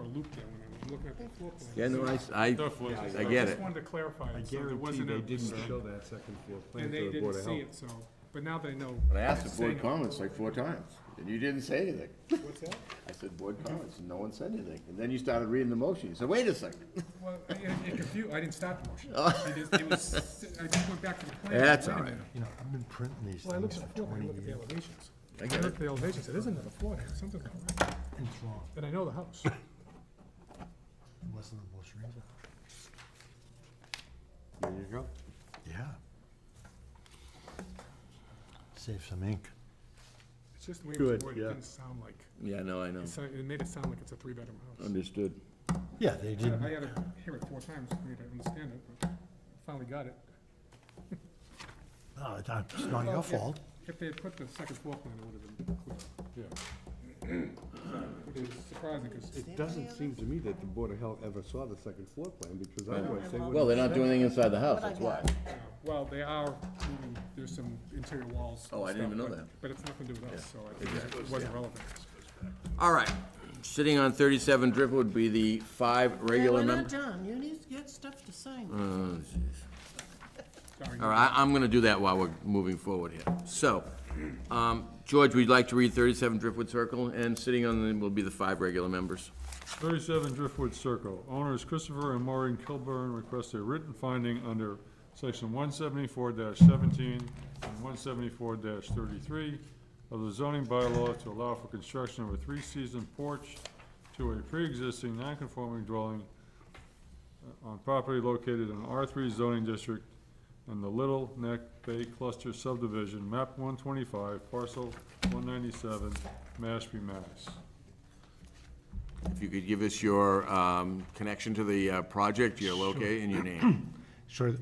loop there when I was looking at the floor plan. Yeah, no, I, s- I- I get I just it. wanted to clarify, I it, so there guarantee wasn't a they didn't mistake. show that second floor plan And they to the didn't Board of see Health. it, so, but now they know. But I asked the board Saying- comments like four times, and you didn't say anything. What's that? I said, board comments, and no one said anything. And then you started reading the motion. You said, wait a second. Well, I- I- it confused, I didn't stop the motion. I just, it was, I just went back to the plan. Oh. That's Wait a all right. minute. You know, I've been printing these Well, I looked things at for the floor, plan, I twenty looked at the years, elevations. I I get looked it. at the elevations, there's another floor here, something's not right. and it's wrong, And I know the house. unless of the most reason. There you go. Yeah. Save some ink. It's just the way it was Good, worded, it yeah. didn't sound like, Yeah, no, I know. it sound- it made it sound like it's a three-bedroom house. Understood. Yeah, they I didn't, I had to hear it four times for me to understand it, but finally got it. no, it's not- it's Well, not your if- fault. If they had put the second floor plan, it would have been clear. Yeah. Which is surprising, because It doesn't seem to me that the Board of Health ever saw the second floor plan, because otherwise they would. Well, they're not doing anything inside the house, that's why. uh, Well, they are, moving- there's some interior walls. and Oh, I didn't stuff, even know but- that. But it's nothing to do with us, so I think it wasn't relevant. All right. Sitting on thirty-seven drip would be the five regular uh, We're members. not done, you need to get stuff to sign. Sorry. All right, I- I'm going to do that while we're moving forward here. So, um, George, we'd like to read 37 Driftwood Circle, and sitting on them will be the five regular members. 37 Driftwood Circle. Owners Christopher and Maureen Kilburn request a written finding under section 174-17 and 174-33 of the zoning bylaw to allow for construction of a three-season porch to a pre-existing non-conforming dwelling uh, on property located in R3 zoning district in the Little Neck Bay Cluster subdivision, map 125, parcel 197, Mashpee, Mass. If you could give us your um, connection to the uh, project, your locate, and your name, Sure,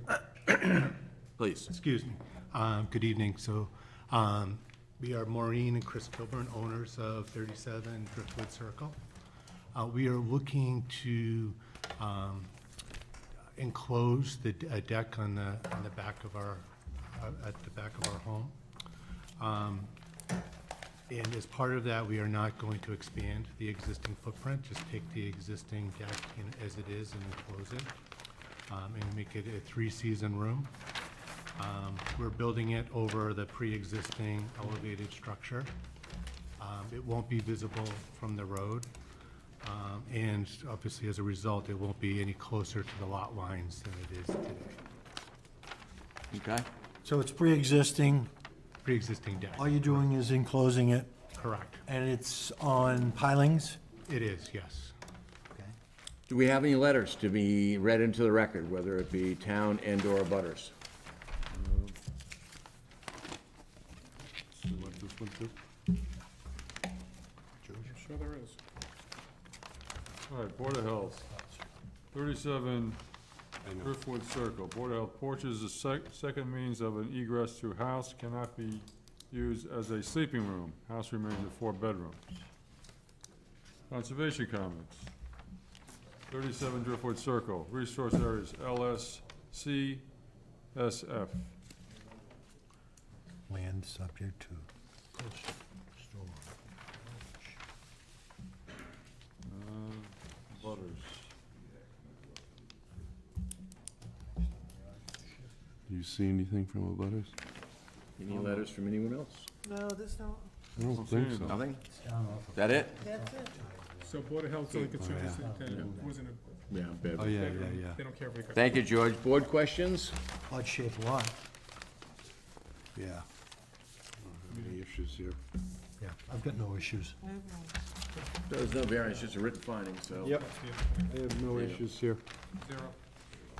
please. excuse me. Um, good evening, so, um, we are Maureen and Chris Kilburn, owners of thirty-seven Driftwood Circle. Uh, we are looking to, um, enclose the d- a deck on the, on the back of our, uh, at the back of our home. Um, And as part of that, we are not going to expand the existing footprint, just take the existing deck in- as it is and enclose it, um, and make it a three-season room. Um, We're building it over the pre-existing elevated structure. Um, It won't be visible from the road, um, and obviously, as a result, it won't be any closer to the lot lines than it is today. Okay? So it's pre-existing, Pre-existing deck, all you're doing is enclosing it, correct. and it's on pilings? It is, yes. Do we have any letters to be read into the record, whether it be town and/or butters? You want this one too? I'm Sure there is. All right, Board of Health, thirty-seven Driftwood Circle, Board of Health, porch is the sec- second means of an egress to house, cannot be used as a sleeping room, house remains a four bedrooms. Conservation comments, thirty-seven Driftwood Circle, resource areas LSC, SF. Land subject to coastal Uh, Butters, Do you see anything from the butters? Any letters from anyone else? No, there's no, I don't think so. Nothing? Is that it? that's it. So Board of Health's only concern is that uh, it wasn't a, Yeah, Oh, yeah, yeah, they don't care if they got. Thank you, George. Board questions? Odd-shaped lot. yeah. Yeah. Any issues here? Yeah, I've got no issues. There's no variance, just a written finding, so. Yep, Yeah, I have no issues here. Zero.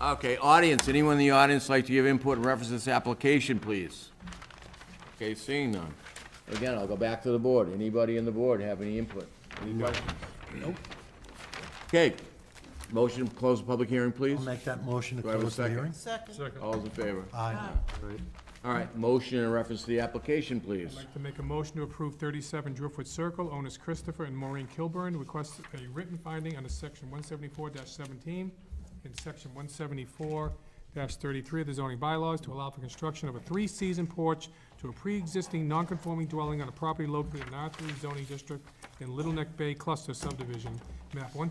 Okay, audience, anyone in the audience like to give input in reference to this application, please? Okay, seeing none. Again, I'll go back to the board. Anybody in the board have any input? Any questions? Okay, motion to close the public hearing, please? I'll make that motion to Do I have a close the second? hearing. Second, second, All those in favor? Aye. All right, motion in reference to the application, I'd please. like to make a motion to approve 37 Driftwood Circle, owners Christopher and Maureen Kilburn, request a written finding under section 174-17 and section 174-33 of the zoning bylaws to allow for construction of a three-season porch to a pre-existing non-conforming dwelling on a property located in R3 zoning district in Little Neck Bay Cluster subdivision, map 125,